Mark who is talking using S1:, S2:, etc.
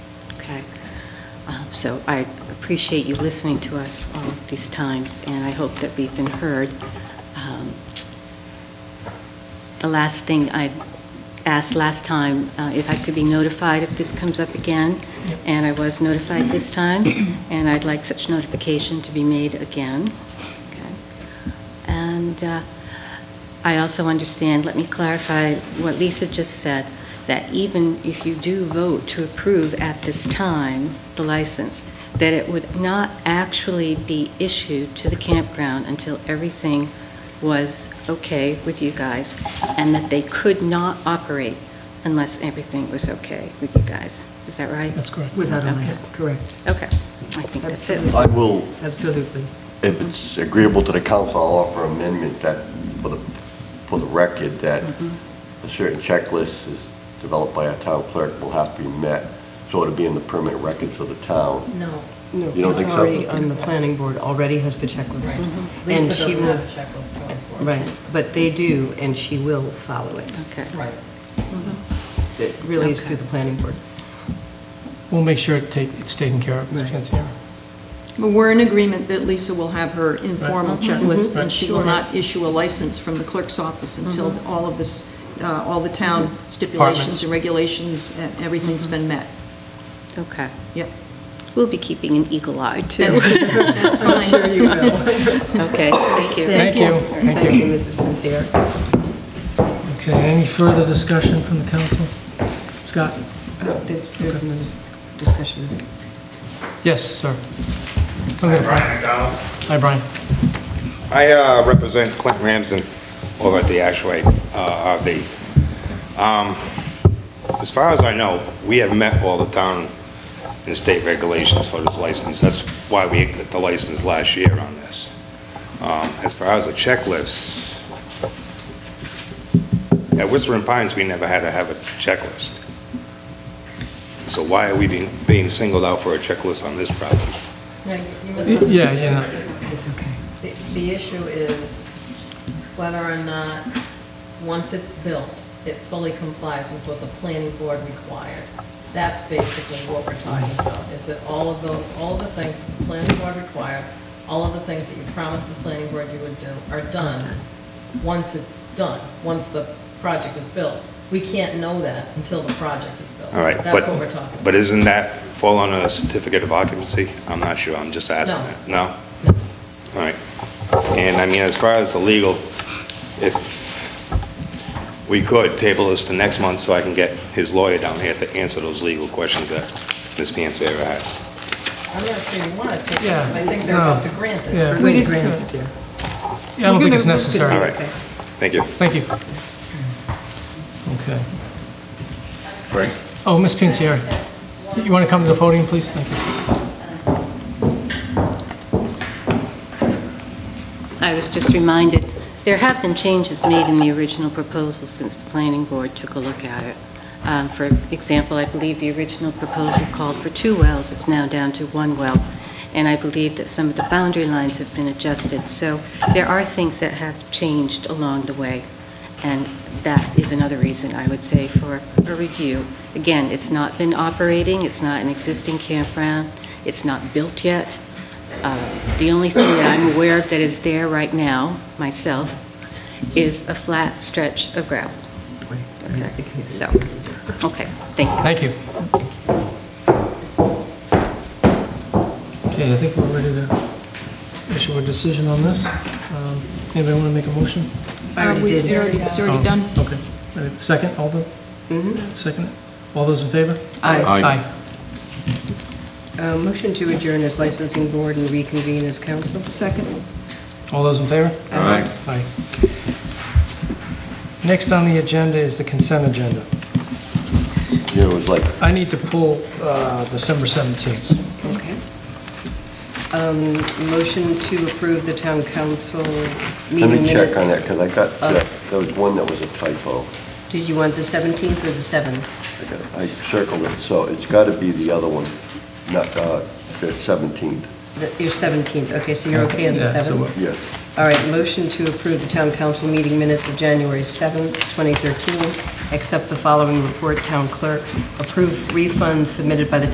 S1: Okay. Uh, So I appreciate you listening to us all of these times, and I hope that we've been heard. Um, The last thing I asked last time, uh, if I could be notified if this comes up again, and I was notified this time, and I'd like such notification to be made again. Okay. And uh, I also understand, let me clarify what Lisa just said, that even if you do vote to approve at this time the license, that it would not actually be issued to the campground until everything was okay with you guys, and that they could not operate unless everything was okay with you guys. Is that right?
S2: That's correct.
S3: Without a
S1: Okay.
S3: license, correct,
S1: Okay, I think that's it.
S3: Absolutely.
S4: I will,
S3: absolutely.
S4: if it's agreeable to the council, I'll offer amendment that, for the, for the record, that
S3: Mm-hmm.
S4: a certain checklist is developed by our town clerk will have to be met, so it'll be in the permanent records of the town.
S3: Mm-hmm.
S5: No.
S3: No,
S4: You don't
S3: it's
S4: think so?
S3: already on the planning board, already has the checklist.
S2: Mm-hmm.
S3: And she will,
S5: checklist going forward.
S3: right, but they do, and she will follow it.
S1: Okay.
S5: Right.
S3: It really is
S1: Okay.
S3: through the planning board.
S2: We'll make sure it take, it's taken care of, Ms.
S3: Right.
S2: Panzera.
S6: But We're in agreement that Lisa will have her informal checklist,
S2: Right.
S6: and she will not issue a license from the clerk's office until all of this, uh, all the town
S2: Departments.
S6: stipulations and regulations, and everything's been met.
S1: Okay.
S6: Yep.
S1: We'll be keeping an eagle eye, too.
S6: That's fine.
S3: Sure you will.
S1: Okay, thank you.
S2: Thank you.
S3: Thank you, Mrs. Panzera.
S2: Okay, any further discussion from the council? Scott?
S3: Uh, there- There's another s- discussion.
S2: Yes, sir.
S7: Hi, Brian McDonald.
S2: Hi, Brian.
S7: I uh, represent Clint Ramsden over at the Ashway uh, RV. Um, As far as I know, we have met all the town and state regulations for this license. That's why we got the license last year on this. Um, As far as the checklist, at Whispering Pines, we never had to have a checklist. So why are we being being singled out for a checklist on this property?
S5: No, you- you
S2: Y-
S5: must-
S2: Yeah, you know,
S3: It's okay.
S5: The- The issue is whether or not, once it's built, it fully complies with what the planning board required. That's basically what we're talking about, is that all of those, all of the things that the planning board required, all of the things that you promised the planning board you would do are done, once it's done, once the project is built. We can't know that until the project is built.
S7: All right, but...
S5: That's what we're talking about.
S7: But isn't that fall on a certificate of occupancy? I'm not sure, I'm just asking
S5: No.
S7: that. No? All right. And I mean, as far as the legal, if we could table this to next month so I can get his lawyer down here to answer those legal questions that Ms. Panzera had.
S5: I'm not sure you want to take it,
S2: Yeah,
S5: but I think they're about
S2: no,
S5: to grant it.
S2: yeah.
S3: We're granted there.
S2: Yeah, I don't think it's necessary.
S7: All right, thank you.
S2: Thank you. Okay.
S4: Frank?
S2: Oh, Ms. Panzera, you want to come to the podium, please? Thank you.
S1: I was just reminded, there have been changes made in the original proposal since the planning board took a look at it. Um, For example, I believe the original proposal called for two wells, it's now down to one well, and I believe that some of the boundary lines have been adjusted, so there are things that have changed along the way, and that is another reason, I would say, for a review. Again, it's not been operating, it's not an existing campground, it's not built yet, uh, The only thing that I'm aware of that is there right now, myself, is a flat stretch of gravel. Okay, so, okay, thank you.
S2: Thank you. Okay, I think we're ready to issue a decision on this. Um, Anybody want to make a motion?
S3: I already
S6: Uh, we-
S3: did.
S6: it already- It's already
S2: Oh,
S6: done.
S2: Okay. All right, Second, all the, second, all those in favor?
S3: Aye.
S2: Aye.
S3: Uh, Motion to adjourn as licensing board and reconvene as council.
S6: Second?
S2: All those in favor? Aye. Next on the agenda is the consent agenda.
S4: Yeah, it was like
S2: I need to pull uh, December 17th.
S3: Okay. Um, Motion to approve the town council
S4: Let
S3: meeting
S4: me
S3: minutes.
S4: check on that, because I got,
S3: Uh,
S4: checked. there was one that was a typo.
S3: Did you want the 17th or the 7th?
S4: I got- I circled it, so it's got to be the other one, not, uh, the 17th,
S3: The- Your 17th, okay, so you're okay on the
S2: Yeah, so
S3: 7th?
S4: yes.
S3: All right, motion to approve the town council meeting minutes of January 7th, 2013. Accept the following report, town clerk. Approve refunds submitted by the